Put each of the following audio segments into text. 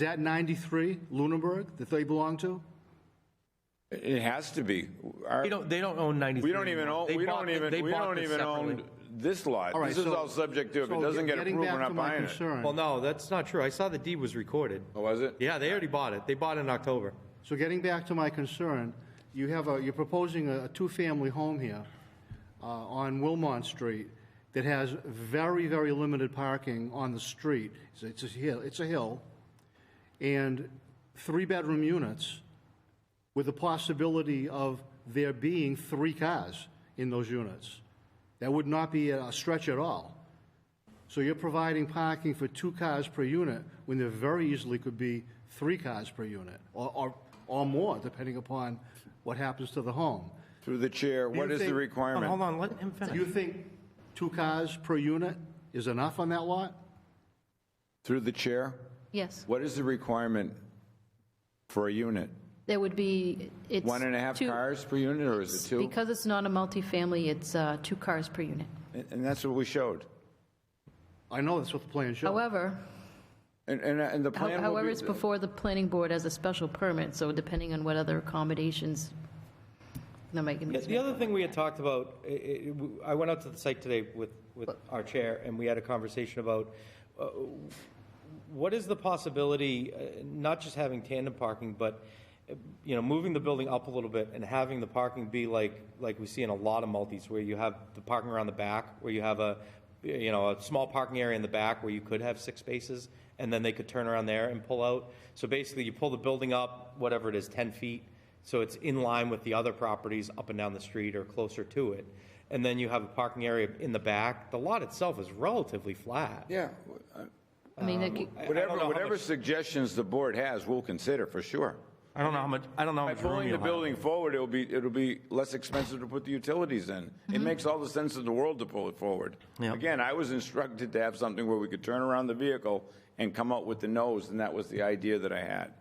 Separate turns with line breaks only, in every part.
that 93 Lunenburg that they belong to?
It has to be. Our-
They don't, they don't own 93.
We don't even
anymore.
own,
They
we
bought
don't
the-
even,
they
we
bought
don't
this
even own
separately.
this lot.
All right,
This is
so-
all subject to, if it
so
doesn't get
getting
approved,
back
we're
to
not
my
buying it.
concern.
Well, no, that's not true. I saw the deed was recorded.
Oh, was it?
Yeah, they already bought it. They bought it in October.
So getting back to my concern, you have a, you're proposing a, a two-family home here uh, on Wilmont Street that has very, very limited parking on the street. It's- It's a hill, it's a hill, and three-bedroom units with the possibility of there being three cars in those units. That would not be a stretch at all. So you're providing parking for two cars per unit when there very easily could be three cars per unit or, or, or more, depending upon what happens to the home.
Through the chair, what
you
is the
think-
Oh, Hold
requirement?
on, let him
Do you
finish.
think two cars per unit is enough on that lot?
Through the chair,
Yes,
what is the requirement for a unit?
there would be, it's.
One and a half
two-
cars per unit, or is it two?
Because it's not a multifamily, it's uh, two cars per unit.
And and that's what we showed.
I know that's what the plan shows.
However,
And, and, and the
how-
plan will
however,
be-
it's before the planning board as a special permit, so depending on what other accommodations, no, I can.
The other thing we had talked about, i- i- w- I went out to the site today with, with our chair, and we had a conversation about uh, what is the possibility, uh, not just having tandem parking, but, uh, you know, moving the building up a little bit and having the parking be like, like we see in a lot of multis, where you have the parking around the back, where you have a, you know, a small parking area in the back where you could have six spaces, and then they could turn around there and pull out. So basically, you pull the building up, whatever it is, 10 feet, so it's in line with the other properties up and down the street or closer to it. And then you have a parking area in the back. The lot itself is relatively flat.
Yeah,
I mean, it could-
I- I don't know
whatever,
how
whatever
much-
suggestions the board has, we'll consider for sure.
I don't know how much, I don't know how
By
much room
pulling
you
the
have.
building forward, it'll be, it'll be less expensive to put the utilities in. It makes all the sense in the world to pull it forward.
Yeah.
Again, I was instructed to have something where we could turn around the vehicle and come out with the nose, and that was the idea that I had.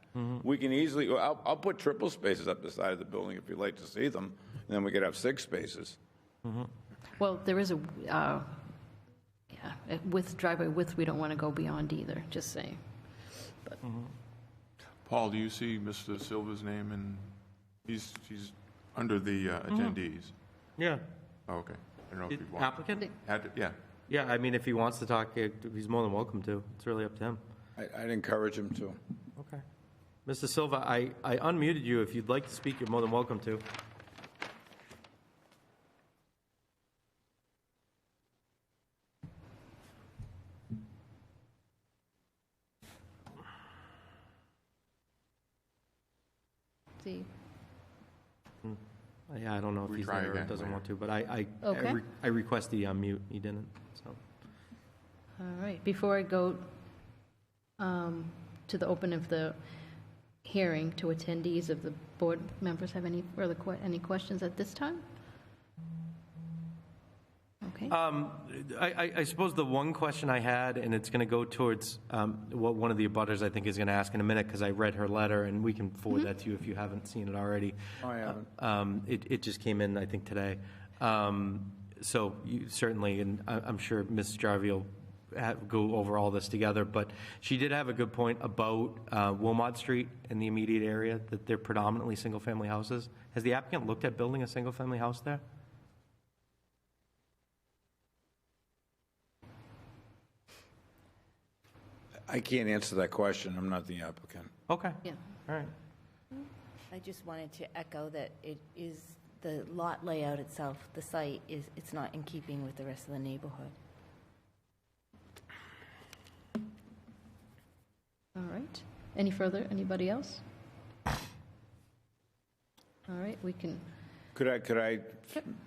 We can easily, well, I'll, I'll put triple spaces up the side of the building if you'd like to see them, and then we could have six spaces.
well, there is a, uh, yeah, with driveway width, we don't want to go beyond either, just saying.
Paul, do you see Mr. Silva's name in, he's, he's under the uh, attendees?
Yeah.
Oh, okay. I don't know if you want.
Applicant?
Had to- Yeah.
Yeah, I mean, if he wants to talk, eh, he's more than welcome to. It's really up to him.
I, I'd encourage them to.
Okay. Mr. Silva, I, I unmuted you. If you'd like to speak, you're more than welcome to. Uh,
See,
Yeah, I don't know if
We
he's
try
there or
again
doesn't
later.
want to, but I, I- I,
Okay.
re- I request the unmute. He didn't, so.
all right, before I go um, to the open of the hearing to attendees, if the board members have any further, que- any questions at this time? Okay.
Uh,
Um, I, I, I suppose the one question I had, and it's going to go towards um, what one of the abutters I think is going to ask in a minute, because I read her letter, and we can forward that to you if you haven't seen it already.
I haven't.
Um, it, it just came in, I think, today. Um, so you certainly, and I, I'm sure Ms. Jarvie will ha go over all this together, but she did have a good point about uh, Wilmot Street and the immediate area, that they're predominantly single-family houses. Has the applicant looked at building a single-family house there?
I can't answer that question. I'm not the applicant.
Okay.
Yeah.
All right.
I just wanted to echo that it is, the lot layout itself, the site is, it's not in keeping with the rest of the neighborhood.
All right. Any further? Anybody else? All right, we can,
Could I, could I,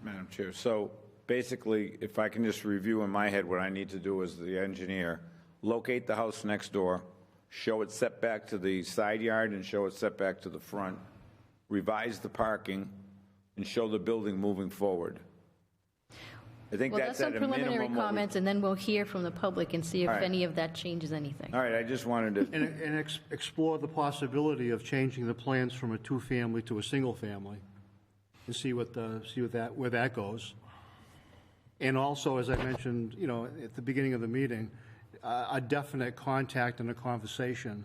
Madam Chair, so basically, if I can just review in my head what I need to do as the engineer, locate the house next door, show it setback to the side yard and show it setback to the front, revise the parking, and show the building moving forward. I think
well,
that's
that's
at a
some
minimum.
preliminary
what we-
comments, and then we'll hear from the public and see if
All right.
any of that changes anything.
All right, I just wanted to,
And, and ex- explore the possibility of changing the plans from a two-family to a single-family and see what, the- see what that, where that goes. And also, as I mentioned, you know, at the beginning of the meeting, a a definite contact and a conversation